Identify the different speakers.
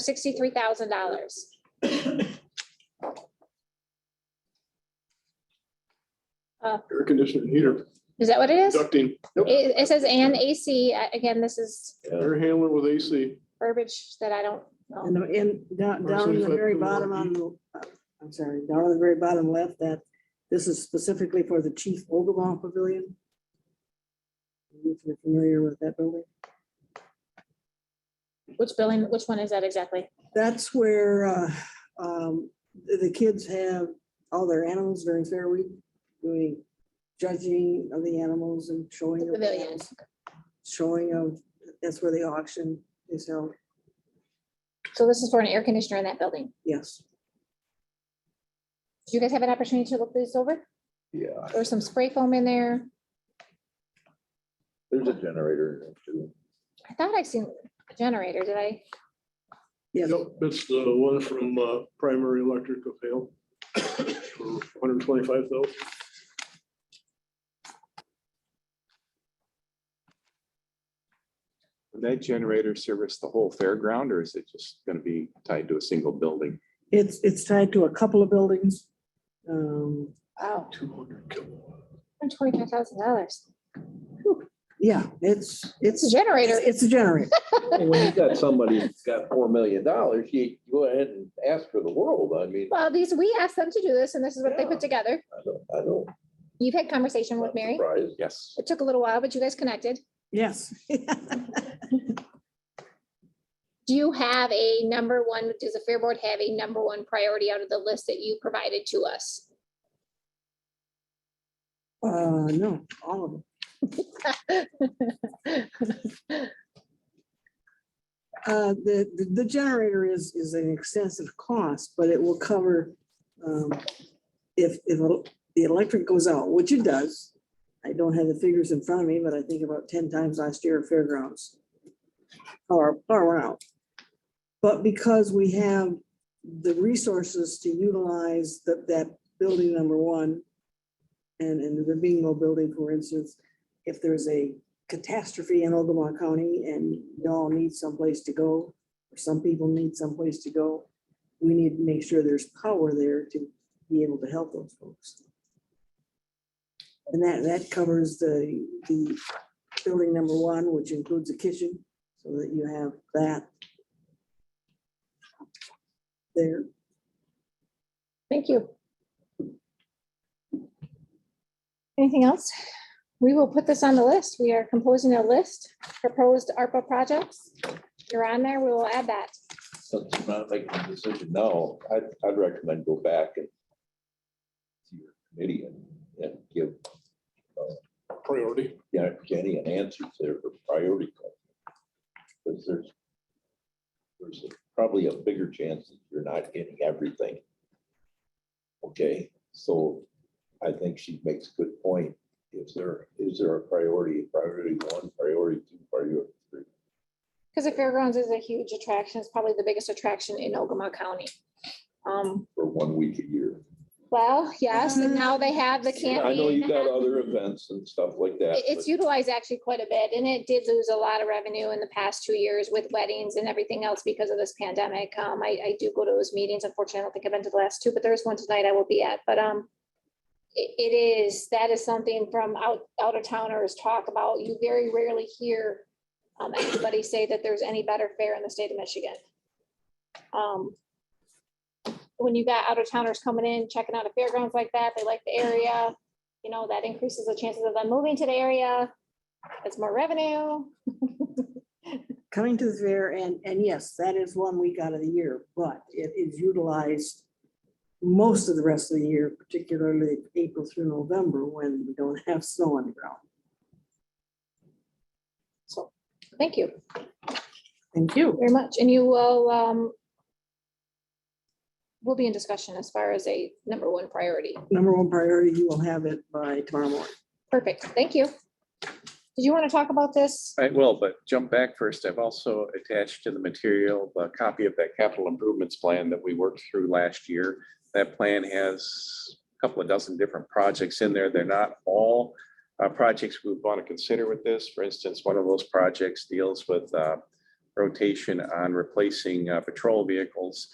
Speaker 1: sixty-three thousand dollars.
Speaker 2: air conditioner heater,
Speaker 1: Is that what it is?
Speaker 2: ducting, Yep.
Speaker 1: It, it says and AC, I- uh, again, this is
Speaker 2: air handler with AC.
Speaker 1: verbiage that I don't know.
Speaker 3: And, the- and down,
Speaker 2: Verse
Speaker 3: down in the
Speaker 2: 25
Speaker 3: very
Speaker 2: through
Speaker 3: bottom on the, uh, I'm sorry, down on the very bottom left, that this is specifically for the Chief Ogumah Pavilion. If you're familiar with that building,
Speaker 1: Which billing, which one is that exactly?
Speaker 3: that's where, uh, um, the, the kids have all their animals during fair week, doing judging of the animals and showing.
Speaker 1: The
Speaker 3: of
Speaker 1: pavilion.
Speaker 3: animals, Showing of, that's where the auction is held,
Speaker 1: So this is for an air conditioner in that building.
Speaker 3: yes.
Speaker 1: Did you guys have an opportunity to look this over?
Speaker 4: Yeah,
Speaker 1: There's some spray foam in there.
Speaker 4: there's a generator. in
Speaker 1: I thought I seen a generator, did I?
Speaker 3: Yes.
Speaker 2: Yep, that's the one from uh, Primary Electric of Hale. Hundred twenty-five thousand.
Speaker 5: Would that generator service the whole fairground or is it just gonna be tied to a single building?
Speaker 3: It's, it's tied to a couple of buildings. Um,
Speaker 1: Oh,
Speaker 2: Two hundred kilowatt.
Speaker 1: twenty-five thousand dollars.
Speaker 3: yeah, it's,
Speaker 1: It's a
Speaker 3: it's,
Speaker 1: generator.
Speaker 3: it's a generator.
Speaker 4: too. When you got somebody that's got four million dollars, you go ahead and ask for the world. I mean,
Speaker 1: Well, these, we asked them to do this and this is what they
Speaker 4: Yeah.
Speaker 1: put together.
Speaker 4: I don't, I don't.
Speaker 1: You've had conversation with
Speaker 4: I'm
Speaker 1: Mary.
Speaker 4: surprised.
Speaker 5: Yes.
Speaker 1: It took a little while, but you guys connected.
Speaker 3: Yes.
Speaker 1: Do you have a number one, does the Fair Board have a number one priority out of the list that you provided to us?
Speaker 3: Uh, no, all of them. Uh, the, the- the generator is, is an extensive cost, but it will cover, um, if, if el- the electric goes out, which it does. I don't have the figures in front of me, but I think about ten times last year at fairgrounds. Or, or out. But because we have the resources to utilize that, that building number one. And, and the bingo building, for instance, if there's a catastrophe in Ogama County and y'all need someplace to go, or some people need someplace to go, we need to make sure there's power there to be able to help those folks. And that, that covers the, the building number one, which includes a kitchen, so that you have that there.
Speaker 1: Thank you. Anything else? We will put this on the list. We are composing a list, proposed ARPA projects. You're on there. We will add that.
Speaker 4: Since I'm not making a decision now, I'd, I'd recommend go back and see your committee and, and give,
Speaker 2: Priority.
Speaker 4: you know, Jenny an answer to their priority. question. Because there's, there's probably a bigger chance that you're not getting everything. Okay, so I think she makes a good point. Is there, is there a priority, priority one, priority two, priority three?
Speaker 1: Because the fairgrounds is a huge attraction. It's probably the biggest attraction in Ogama County. Um,
Speaker 4: for one week a year.
Speaker 1: well, yes, and now they have the candy.
Speaker 4: Mm-hmm. I know you got other events and stuff like that.
Speaker 1: It- It's
Speaker 4: but-
Speaker 1: utilized actually quite a bit, and it did lose a lot of revenue in the past two years with weddings and everything else because of this pandemic. Um, I, I do go to those meetings. Unfortunately, I don't think I've been to the last two, but there is one tonight I will be at, but, um, it, it is, that is something from out, out of towners talk about. You very rarely hear um, anybody say that there's any better fare in the state of Michigan. Um, when you got out of towners coming in, checking out a fairgrounds like that, they like the area you know, that increases the chances of them moving to the area. It's more revenue.
Speaker 3: coming to the fair and, and yes, that is one week out of the year, but it is utilized most of the rest of the year, particularly April through November when we don't have snow on the ground.
Speaker 1: So, thank you
Speaker 3: Thank you.
Speaker 1: very much. And you will, um, we'll be in discussion as far as a number one priority.
Speaker 3: Number one priority, you will have it by tomorrow morning.
Speaker 1: Perfect. Thank you. Did you want to talk about this?
Speaker 5: I will, but jump back first. I've also attached to the material a copy of that capital improvements plan that we worked through last year. That plan has a couple of dozen different projects in there. They're not all uh, projects we want to consider with this. For instance, one of those projects deals with uh, rotation on replacing uh, patrol vehicles